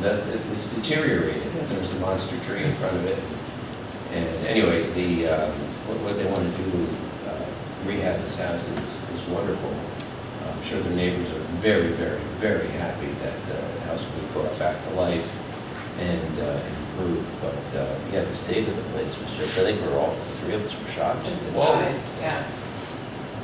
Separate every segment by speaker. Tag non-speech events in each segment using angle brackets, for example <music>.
Speaker 1: that, it was deteriorated, there was a monster tree in front of it. And anyway, the, um, what, what they want to do, uh, rehab this house is, is wonderful. I'm sure their neighbors are very, very, very happy that uh, the house will be brought back to life and uh, improved. But, uh, yeah, the state of the place was just, I think we we're all, three of us were shocked.
Speaker 2: Just
Speaker 1: Whoa.
Speaker 2: surprised, yeah.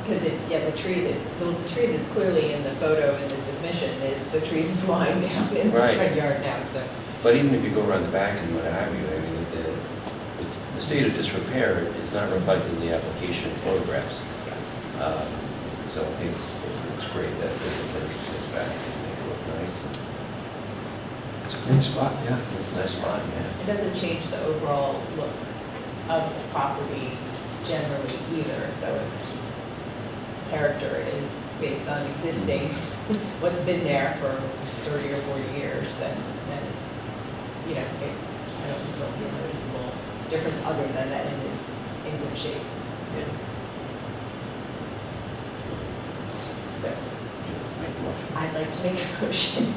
Speaker 2: Because it, yeah, the tree that, the tree that's clearly in the photo in the submission is the tree that's lying down in the
Speaker 1: Right.
Speaker 2: front yard now, so.
Speaker 1: But even if you go around the back and what have you, I mean, the, it's, the state of disrepair is not reflected in the application photographs. Um, So I think it's, it's great that the village goes back and make it look nice. It's a
Speaker 3: Good spot, yeah.
Speaker 1: It's a nice spot, yeah.
Speaker 2: It doesn't change the overall look of the property generally either, so if character is based on existing, <laughs> what's been there for thirty or forty years, then, then it's, you know, it, I don't think there'll be a noticeable difference other than that it is in good shape,
Speaker 1: Yeah.
Speaker 2: so.
Speaker 1: Would you like to Make a motion.
Speaker 2: I'd like to make a motion,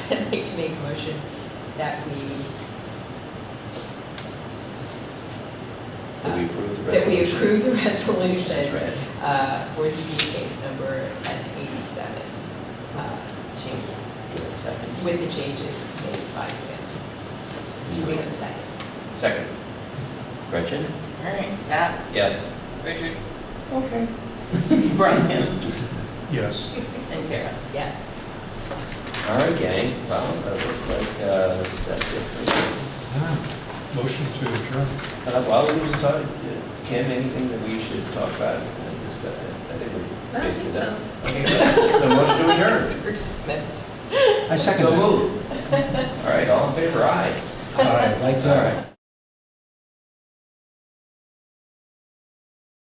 Speaker 2: <laughs> I'd like to make a motion that we,
Speaker 1: That we approve the
Speaker 2: that
Speaker 1: resolution.
Speaker 2: we approve the resolution
Speaker 1: That's right.
Speaker 2: uh, for ZBA case number 1087, uh, changes,
Speaker 1: Do we have a Second.
Speaker 2: with the changes made by Kim. Do we have a second?
Speaker 1: Second. Gretchen?
Speaker 4: All right, Scott,
Speaker 1: Yes.
Speaker 4: Richard. Okay. <laughs> Brian
Speaker 3: Yes.
Speaker 4: and Kara.
Speaker 2: Yes.
Speaker 1: All right, gang. Well, that looks like, uh, that's it. for-
Speaker 3: Ah. Motion to adjourn.
Speaker 1: Uh, Well, we decided, uh, Kim, anything that we should talk about and discuss? I think we're basically done. Okay, good. so motion to adjourn.
Speaker 2: We're dismissed.
Speaker 3: I second
Speaker 1: So
Speaker 3: that.
Speaker 1: moved. All right, all in favor, aye.
Speaker 3: Aye, lights
Speaker 1: All right.
Speaker 3: out.